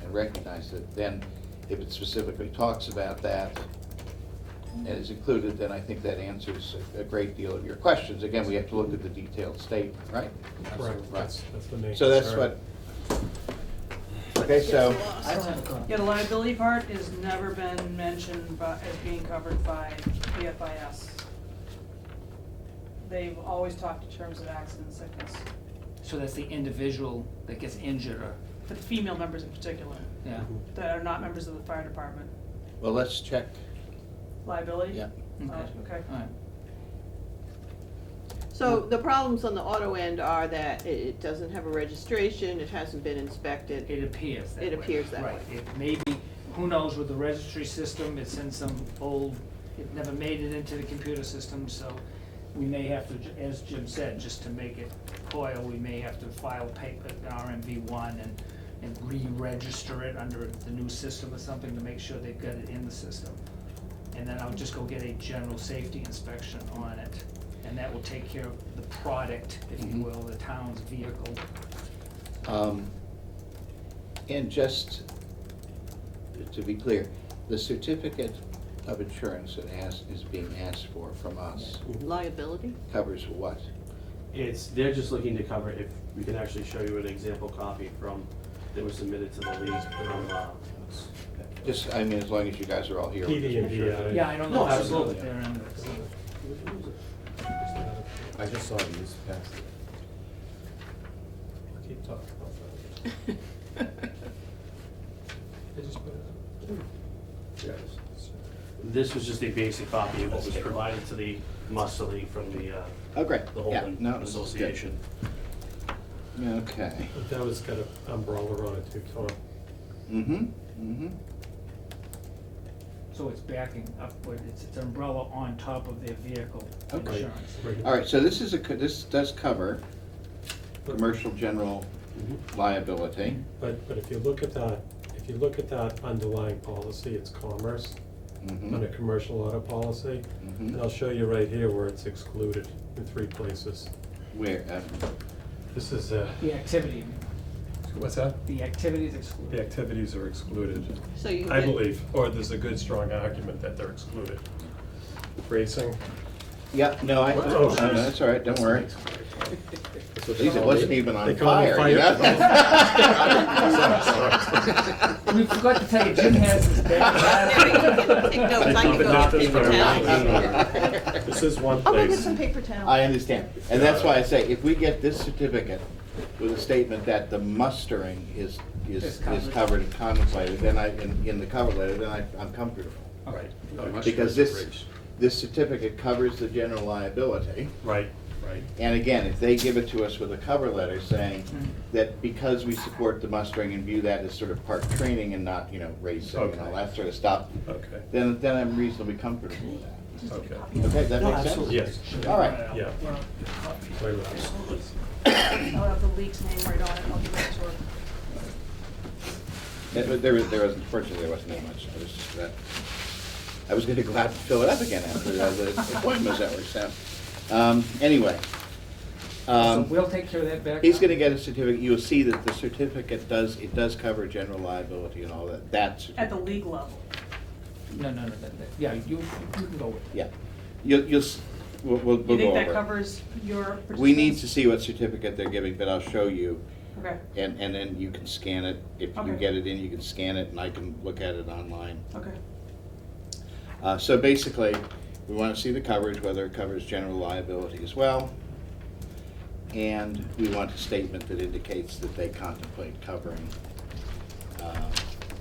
and recognize it, then if it specifically talks about that and is included, then I think that answers a a great deal of your questions. Again, we have to look at the detailed statement, right? Correct, that's, that's the main. So that's concern. what, okay, so, I don't have a comment. Yeah, the liability part has never been mentioned by, as being covered by the FIS. They've always talked in terms of accident and sickness, So that's the individual that gets injured or, for the female members in particular, yeah, that are not members of the fire department. well, let's check, Liability? yeah. okay, Oh, okay. all right. So the problems on the auto end are that it, it doesn't have a registration, it hasn't been inspected. It appears that way. It appears that Right, it may be, who knows with the registry system, it's in some old, it never made it into the computer system, so we may have to, ju- as Jim said, just to make it coil, we may have to file paper, RMV one and, and re-register it under the new system or something to make sure they've got it in the system. And then I'll just go get a general safety inspection on it, and that will take care of the product, if you Mm-hmm. Mhm. will, the town's vehicle. Um, And just to be clear, the certificate of insurance that has, is being asked for from us Mm-hmm. Liability? covers what? It's, they're just looking to cover, if we can actually show you an example copy from, that was submitted to the league from, uh, Just, I mean, as long as you guys are all here. PD and DI. Yeah, I don't No, know. if it's absolutely. there and it's- I just saw it this past. Keep talking about that. They just put it This was just a basic copy of what was provided to the muster league from the, uh, Oh, great, the yeah, Holden no. this is good. Association. Okay. out. That was got an umbrella on it too, Tom. Mm-hmm, mm-hmm. So it's backing upward, it's, it's umbrella on top of their vehicle Okay. insurance. Right. All right, so this is a, co- this does cover But- commercial general Mm-hmm. liability. But, but if you look at that, if you look at that underlying policy, it's commerce, Mhm, under commercial auto policy. mhm. And I'll show you right here where it's excluded in three places. Where, uh, This is, uh, The activity, what's that? the activity is The excluded. activities are excluded, So you. I get- believe, or there's a good, strong argument that they're excluded. Racing, yeah, no, I, no, Oh. no, that's all right, don't worry. At Geez, it wasn't even They on call it fire. you know? We forgot to tell you, Jim has his There we go, back. get- take notes, I can But not go this get paper one. towels. This is one I'll go get place. some paper towels. I understand, and that's why I say, if we get this certificate with a statement that the mustering is, is, Is is covered. covered and contemplated, then I, in, in the cover letter, then I, I'm comfortable. Right. Because this, this certificate covers the general liability. right, Right. And again, if they give it to us with a cover letter saying Mm-hmm. that because we support the mustering and view that as sort of part training and not, you know, racing and all Okay. that sort of stuff, okay, then, then I'm reasonably comfortable with that. okay, Okay, that No, makes sense? absolutely. yes. All right. Yeah. Well, Wait a minute. I'll have the league's name right on it, I'll give it to her. That- but There, was- there was, unfortunately, there wasn't that much, it was just that, I was gonna go out and fill it up again after the the appointment was over, so, um, anyway. So Um, we'll take care of that back. He's gonna get a certificate, you'll see that the certificate does, it does cover general liability and all that, that's. At the league level. No, no, no, that, that, yeah, you, you can go with it. Yeah, you'll, you'll, s- we'll, we'll You we'll go think over. that covers your participants? We need to see what certificate they're giving, but I'll show you, Okay, and, and then you can scan it, if you Okay. get it in, you can scan it, and I can look at it online. okay. Uh, so basically, we wanna see the coverage, whether it covers general liability as well. And we want a statement that indicates that they contemplate covering, uh,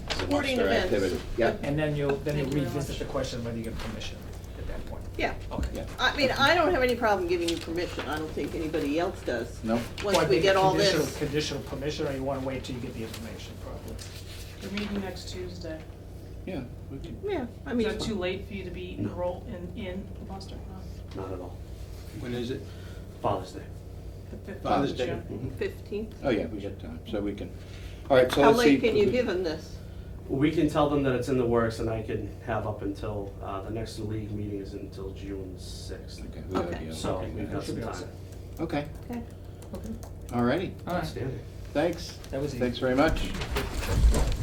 the Sporting muster events. activity. Yeah, And then you'll, then you'll Thank you very revisit much. the question whether you get permission at that point. Yeah, Okay. yeah, I mean, I don't have any problem giving you permission, I don't think anybody else does. no, Well, I Once we think get all conditional- this, Conditional permission, or you wanna wait till you get the information probably? We're meeting next Tuesday. yeah, we can, yeah, I Is mean, that too late for you to be enrolled in, in the muster? No. Not at all. When is it? Father's Day. The fifth of Father's Day. June. fifteenth, oh yeah, we got time, so we can, all right, so how let's see. late can you give them this? We can tell them that it's in the works and I can have up until, uh, the next league meeting is until June sixth. Okay, we gotta Okay. be. So okay. we've got some time. Okay, Okay. all righty, All right, Outstanding. thanks. that was easy. Thanks very much.